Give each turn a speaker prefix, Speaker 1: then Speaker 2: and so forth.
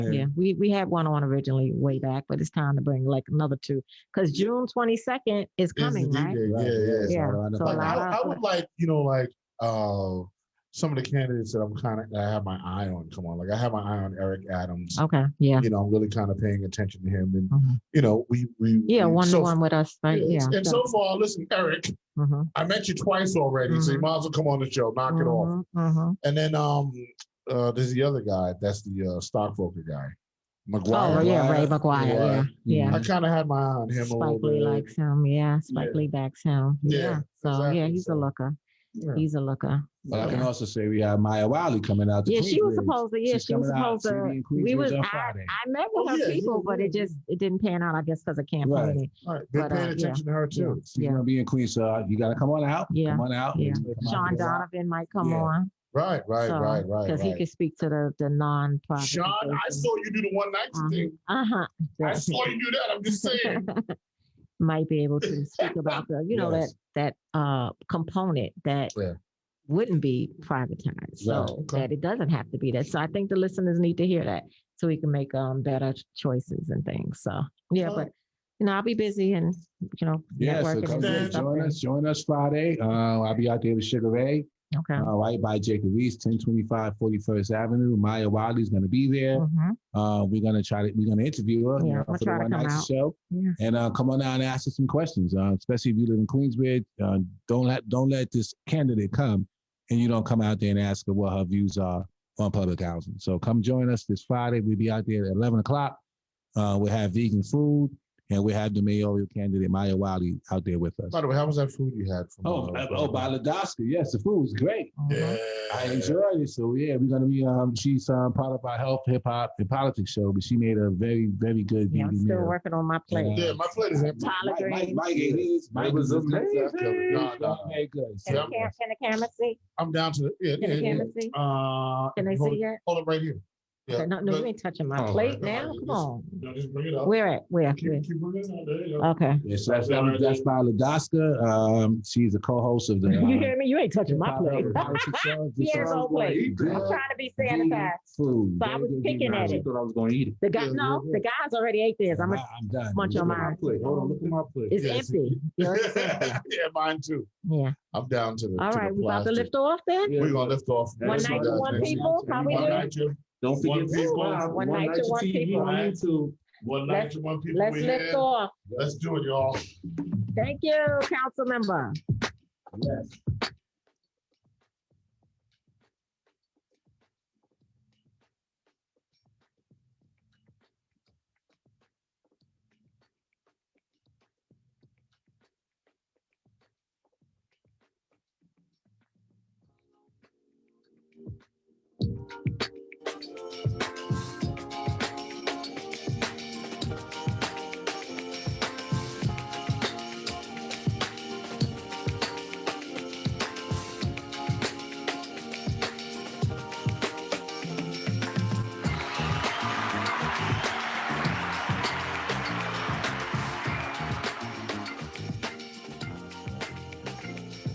Speaker 1: Yeah, we, we had one on originally way back, but it's time to bring like another two. Because June twenty second is
Speaker 2: It's the
Speaker 1: coming, right?
Speaker 2: D-Day.
Speaker 3: Right,
Speaker 2: Yeah, yeah.
Speaker 3: yeah.
Speaker 1: Yeah.
Speaker 3: So I know-
Speaker 1: So a
Speaker 2: Like I,
Speaker 1: lot
Speaker 2: I
Speaker 1: of
Speaker 2: would like, you know, like uh some of the candidates that I'm kind of I have my eye on. Come on, like I have my eye on Eric Adams.
Speaker 1: okay, Oh, yeah,
Speaker 2: You know, I'm really kind of paying attention to him, and
Speaker 1: Mhm.
Speaker 2: you know, we we
Speaker 1: yeah,
Speaker 2: we-
Speaker 1: one to
Speaker 2: so-
Speaker 1: one with us, right? Yeah.
Speaker 2: yes. And so far, listen, Eric,
Speaker 1: Mhm,
Speaker 2: I met you twice already, so you
Speaker 1: Mhm.
Speaker 2: might as well come on the show, knock it
Speaker 1: mhm,
Speaker 2: off.
Speaker 1: mhm.
Speaker 2: And then um uh there's the other guy, that's the uh stockbroker guy, McGuire.
Speaker 1: Oh yeah, Ray
Speaker 3: Maguire,
Speaker 1: McGuire, yeah,
Speaker 2: I
Speaker 1: yeah.
Speaker 2: kind of had my eye on him a
Speaker 1: Spike
Speaker 2: little
Speaker 1: Lee
Speaker 2: bit.
Speaker 1: likes him, yeah. Spike
Speaker 2: Yeah.
Speaker 1: Lee backs him,
Speaker 2: Yeah,
Speaker 1: yeah. So yeah,
Speaker 2: exactly,
Speaker 1: he's a
Speaker 2: so-
Speaker 1: looker.
Speaker 2: Yeah.
Speaker 1: He's a looker.
Speaker 3: But I can
Speaker 1: Yeah.
Speaker 3: also say we have Maya Wiley coming out. to
Speaker 1: Yeah, she was
Speaker 3: Queensbridge.
Speaker 1: supposed to. Yeah,
Speaker 3: She's
Speaker 1: she was
Speaker 3: coming out.
Speaker 1: supposed
Speaker 3: She'll be
Speaker 1: to.
Speaker 3: in
Speaker 1: We
Speaker 3: Queensbridge
Speaker 1: was.
Speaker 3: on
Speaker 1: I,
Speaker 3: Friday.
Speaker 1: I met
Speaker 2: Oh,
Speaker 1: with
Speaker 2: yeah,
Speaker 1: her
Speaker 2: you
Speaker 1: people,
Speaker 2: did
Speaker 1: but it
Speaker 2: good.
Speaker 1: just it didn't pan out. I guess because of campaigning.
Speaker 2: All right, they're
Speaker 1: But, uh,
Speaker 2: paying
Speaker 1: yeah.
Speaker 2: attention to her too.
Speaker 3: She's
Speaker 1: Yeah.
Speaker 3: gonna be in Queens, so you gotta come on out.
Speaker 1: Yeah.
Speaker 3: Come on out.
Speaker 1: Yeah.
Speaker 3: Come out
Speaker 1: Sean
Speaker 3: here.
Speaker 1: Donovan might come
Speaker 3: Yeah.
Speaker 1: on.
Speaker 2: Right, right, right, right.
Speaker 1: Because he
Speaker 2: right.
Speaker 1: can speak to the the nonprofit.
Speaker 2: Sean, I saw you do the one night
Speaker 1: Mhm.
Speaker 2: thing.
Speaker 1: Uh huh.
Speaker 2: I saw you do that. I'm just saying.
Speaker 1: Might be able to speak about the you know
Speaker 3: Yes.
Speaker 1: that that uh component that.
Speaker 2: Yeah.
Speaker 1: Wouldn't be privatized, so
Speaker 2: okay.
Speaker 1: that it doesn't have to be that. So I think the listeners need to hear that, so we can make um better choices and things. So yeah,
Speaker 2: All
Speaker 1: but
Speaker 2: right.
Speaker 1: you know I'll be busy and you know
Speaker 3: Yeah, so
Speaker 1: networking
Speaker 3: come
Speaker 1: and doing
Speaker 2: Stand.
Speaker 3: join
Speaker 1: something.
Speaker 3: us, join us Friday. Uh, I'll be out there with Sugar Ray,
Speaker 1: Okay.
Speaker 3: uh, right by Jacob Reese, 1025 41st Avenue. Maya Wiley's gonna be there.
Speaker 1: Mhm.
Speaker 3: Uh, we're gonna try to, we're gonna interview her, you
Speaker 1: Yeah,
Speaker 3: know,
Speaker 1: I'ma
Speaker 3: for the
Speaker 1: try to
Speaker 3: one
Speaker 1: come
Speaker 3: night
Speaker 1: out.
Speaker 3: show.
Speaker 1: Yes.
Speaker 3: And uh, come on out and ask us some questions, uh, especially if you live in Queensbridge. Uh, don't let don't let this candidate come and you don't come out there and ask her what her views are on public housing. So come join us this Friday. We'll be out there at eleven o'clock. Uh, we'll have vegan food and we'll have the mayoral candidate Maya Wiley out there with us.
Speaker 2: By the way, how was that food you had? From,
Speaker 3: Oh,
Speaker 2: uh,
Speaker 3: uh, oh, by Ladowska. Yes, the food was great.
Speaker 1: Mhm.
Speaker 2: Yeah.
Speaker 3: I enjoyed it. So yeah, we're gonna be um she's um part of our health, hip hop, and politics show, but she made a very, very good
Speaker 1: Yeah, I'm
Speaker 3: vegan
Speaker 1: still
Speaker 3: meal.
Speaker 1: working on my plate.
Speaker 2: Yeah, my plate is empty.
Speaker 1: Tyler
Speaker 3: Mike- Mike-
Speaker 1: Green.
Speaker 3: Mike ate his. Mike
Speaker 2: It was
Speaker 3: was
Speaker 2: amazing.
Speaker 3: amazing.
Speaker 2: No, no, no.
Speaker 3: Very good.
Speaker 1: Can
Speaker 3: So,
Speaker 1: the cam- can the camera see?
Speaker 2: I'm down to the. Yeah,
Speaker 1: Can
Speaker 2: yeah,
Speaker 1: the
Speaker 2: yeah.
Speaker 1: camera see?
Speaker 2: Uh,
Speaker 1: Can they
Speaker 2: hold,
Speaker 1: see yet?
Speaker 2: Hold it right here. Yeah.
Speaker 1: Okay, No, no,
Speaker 2: but-
Speaker 1: you ain't touching my
Speaker 2: Oh,
Speaker 1: plate
Speaker 2: alright,
Speaker 1: now. Come
Speaker 2: alright, yes.
Speaker 1: on.
Speaker 2: no, just bring it up.
Speaker 1: Where at? Where?
Speaker 2: Keep,
Speaker 1: Where? Oh,
Speaker 2: keep bringing it up. There you go.
Speaker 1: Okay.
Speaker 3: yeah, so that's, that was- that's by Ladaska. Um, she's a co-host of the. uh,
Speaker 1: You hear me? You ain't touching my
Speaker 3: Hip Hop
Speaker 1: plate.
Speaker 3: Urban Politics Show. This
Speaker 1: Here's
Speaker 3: show
Speaker 1: old
Speaker 3: is gonna
Speaker 1: plate.
Speaker 3: eat
Speaker 1: I'm
Speaker 3: good
Speaker 1: trying to be
Speaker 3: vegan
Speaker 1: sanitized.
Speaker 3: Food.
Speaker 1: So I
Speaker 3: Very
Speaker 1: was
Speaker 3: good
Speaker 1: picking
Speaker 3: vegan
Speaker 1: at
Speaker 3: food.
Speaker 1: it.
Speaker 3: thought I was gonna eat it.
Speaker 1: The guy,
Speaker 2: Yeah,
Speaker 1: no,
Speaker 2: yeah,
Speaker 1: the guys already ate this. I'm,
Speaker 3: Nah,
Speaker 1: a-
Speaker 3: I'm done.
Speaker 1: munch
Speaker 3: Look
Speaker 1: on
Speaker 3: at my
Speaker 1: mine.
Speaker 3: plate. Hold on, look at my plate.
Speaker 1: it's
Speaker 2: yeah, it's-
Speaker 1: empty. Yours is empty.
Speaker 2: yeah, mine too.
Speaker 1: Yeah.
Speaker 2: I'm down to the.
Speaker 1: All
Speaker 2: to
Speaker 1: right.
Speaker 2: the
Speaker 1: We about to
Speaker 2: plastic.
Speaker 1: lift off then?
Speaker 2: We're gonna lift off.
Speaker 3: One
Speaker 2: That's
Speaker 3: night
Speaker 2: what
Speaker 3: to
Speaker 2: I
Speaker 3: one
Speaker 2: think.
Speaker 1: people? How we
Speaker 2: One
Speaker 1: doing?
Speaker 2: night to
Speaker 3: Don't
Speaker 2: One
Speaker 3: forget
Speaker 2: people.
Speaker 3: subscribe.
Speaker 1: Wow, one night to one
Speaker 3: TV
Speaker 1: people.
Speaker 3: on YouTube.
Speaker 2: one night
Speaker 1: Let's-
Speaker 2: to one people.
Speaker 1: Let's
Speaker 2: we
Speaker 1: lift
Speaker 2: in.
Speaker 1: off.
Speaker 2: Let's do it, y'all.
Speaker 1: Thank you, council member.
Speaker 3: Yes.